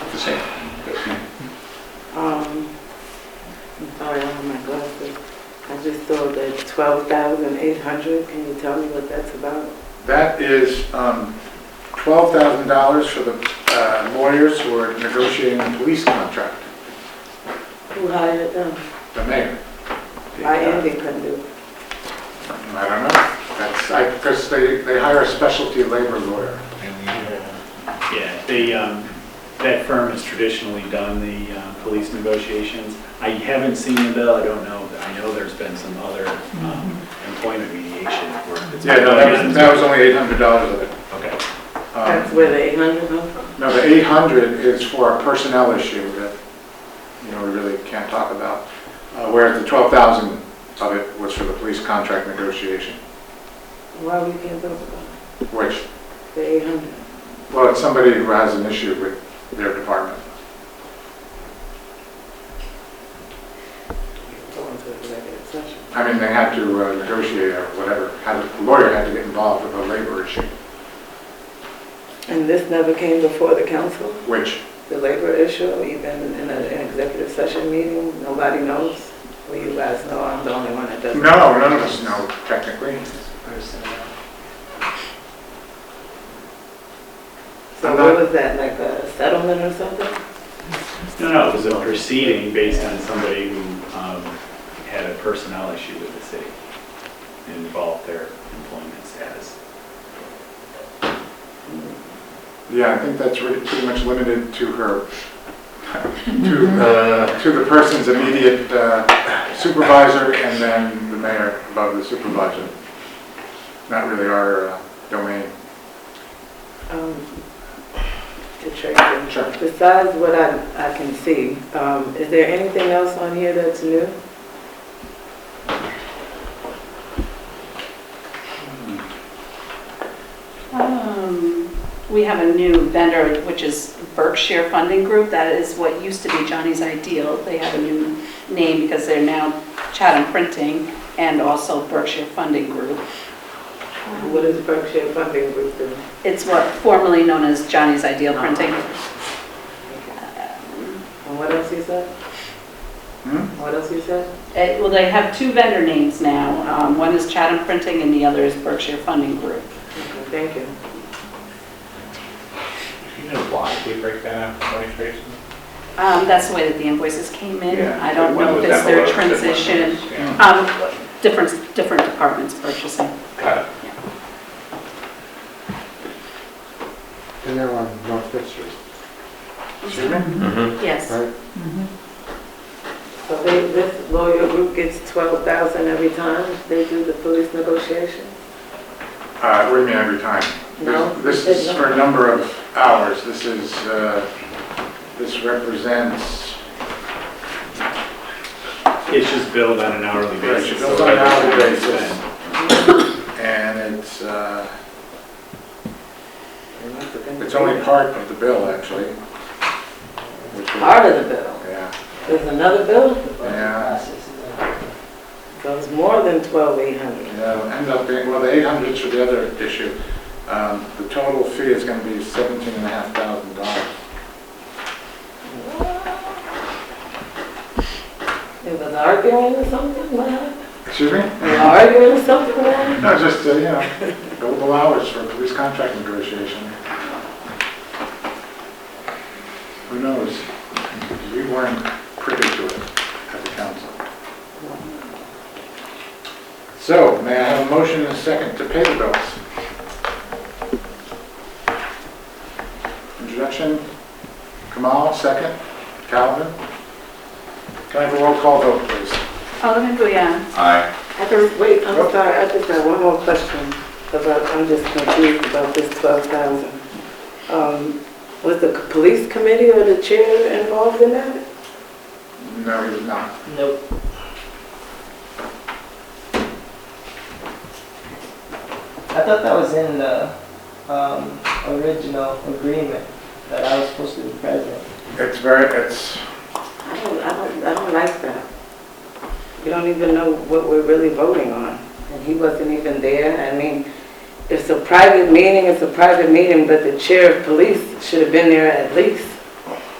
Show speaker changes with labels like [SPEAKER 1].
[SPEAKER 1] the same.
[SPEAKER 2] Um, I'm sorry, I don't have my glasses. I just saw the twelve thousand eight hundred. Can you tell me what that's about?
[SPEAKER 1] That is um, $12,000 for the uh, lawyers who are negotiating the police contract,
[SPEAKER 2] Who hired them?
[SPEAKER 1] the mayor. Uh,
[SPEAKER 2] I am the conduit.
[SPEAKER 1] I don't know. That's, I, because they, they hire a specialty labor lawyer.
[SPEAKER 3] Yeah, they, um, that firm has traditionally done the uh, police negotiations. I haven't seen the bill, I don't know, but I know there's been some other um,
[SPEAKER 4] Mm-hmm.
[SPEAKER 3] employment mediation work. that's
[SPEAKER 1] Yeah,
[SPEAKER 3] been
[SPEAKER 1] no, that was,
[SPEAKER 3] done.
[SPEAKER 1] that was only $800 of it.
[SPEAKER 3] Okay,
[SPEAKER 2] That's
[SPEAKER 1] Um,
[SPEAKER 2] where the eight hundred comes from?
[SPEAKER 1] No, the 800 is for a personnel issue that, you know, we really can't talk about, uh, whereas the 12,000 of it was for the police contract negotiation,
[SPEAKER 2] Why we can't talk about
[SPEAKER 1] which,
[SPEAKER 2] it? the eight hundred?
[SPEAKER 1] well, it's somebody who has an issue with their department.
[SPEAKER 2] Go into executive session.
[SPEAKER 1] I mean, they had to uh, negotiate or whatever, had, the lawyer had to get involved with a labor issue,
[SPEAKER 2] And this never came before the council,
[SPEAKER 1] which,
[SPEAKER 2] the labor issue, even in a- an executive session meeting? Nobody knows? Well, you guys know I'm the only one that doesn't.
[SPEAKER 1] no, none of us know technically.
[SPEAKER 2] So what was that, like a settlement or something?
[SPEAKER 3] no, no, it was a proceeding based on somebody who um, had a personnel issue with the city. It involved their employment status.
[SPEAKER 1] Yeah, I think that's really pretty much limited to her, to, uh, to the person's immediate uh, supervisor and then the mayor above the supervisor. Not really our uh, domain.
[SPEAKER 2] Um, To Tracy.
[SPEAKER 1] Sure.
[SPEAKER 2] Besides what I, I can see, um, is there anything else on here that's new?
[SPEAKER 4] Um, We have a new vendor, which is Berkshire Funding Group. That is what used to be Johnny's Ideal. They have a new name because they're now Chatham Printing and also Berkshire Funding Group.
[SPEAKER 2] What is Berkshire Funding Group doing?
[SPEAKER 4] It's what formerly known as Johnny's Ideal
[SPEAKER 5] Uh-huh.
[SPEAKER 4] Printing.
[SPEAKER 2] And what else you said?
[SPEAKER 1] Hmm?
[SPEAKER 2] What else you said?
[SPEAKER 4] Eh, Well, they have two vendor names now. Um, One is Chatham Printing and the other is Berkshire Funding Group.
[SPEAKER 2] Okay, Thank you.
[SPEAKER 5] You know why they break that out, money traces?
[SPEAKER 4] Um, That's the way that the invoices came in.
[SPEAKER 5] Yeah,
[SPEAKER 4] I don't
[SPEAKER 5] one
[SPEAKER 4] know if
[SPEAKER 5] was
[SPEAKER 4] it's
[SPEAKER 5] down
[SPEAKER 4] their
[SPEAKER 5] below, different
[SPEAKER 4] transition.
[SPEAKER 5] ones, yeah.
[SPEAKER 4] Um, Different, different departments purchasing.
[SPEAKER 5] Got it.
[SPEAKER 6] And they're on North Fifth Street,
[SPEAKER 1] Excuse me?
[SPEAKER 4] Yes. Oh,
[SPEAKER 6] right?
[SPEAKER 2] So they, this lawyer group gets twelve thousand every time they do the police negotiation?
[SPEAKER 1] Uh, We're in every time.
[SPEAKER 2] No.
[SPEAKER 1] This this is for a number of hours. This is, uh, this represents,
[SPEAKER 3] It's just billed on an hourly
[SPEAKER 1] Right,
[SPEAKER 3] basis.
[SPEAKER 1] billed
[SPEAKER 3] so
[SPEAKER 1] on an hourly
[SPEAKER 3] whatever it's
[SPEAKER 1] basis.
[SPEAKER 3] been.
[SPEAKER 1] and it's, uh, it's
[SPEAKER 2] It's
[SPEAKER 1] only part of the bill, actually. which is-
[SPEAKER 2] Part of the bill.
[SPEAKER 1] Yeah,
[SPEAKER 2] There's another bill?
[SPEAKER 1] yeah.
[SPEAKER 2] So it's more than twelve eight hundred.
[SPEAKER 1] Yeah, end up being, well, the 800's for the other issue. Um, The total fee is going to be $17,500.
[SPEAKER 2] It was arguing or something, what happened?
[SPEAKER 1] Excuse me?
[SPEAKER 2] They were Arguing or something, man?
[SPEAKER 1] No, just, uh, you know, billable hours for police contract negotiation. Who knows? We weren't privy to it at the council. So, may I have a motion and a second to pay the bills? Introduction, Kamal, second, Calvin. Can I have a roll call vote, please?
[SPEAKER 4] Alderman Guyan.
[SPEAKER 2] I just, wait, I'm sorry, I just have one more question about, I'm just confused about this twelve thousand. Um, was the police committee or the chair involved in that?
[SPEAKER 1] No, he was not.
[SPEAKER 2] Nope.
[SPEAKER 7] I thought that was in the um, original agreement that I was supposed to be president.
[SPEAKER 1] It's very, it's,
[SPEAKER 2] I don't, I don't, I don't like that. We don't even know what we're really voting on, and he wasn't even there. I mean, it's a private meeting, it's a private meeting, but the chair of police should have been there at least.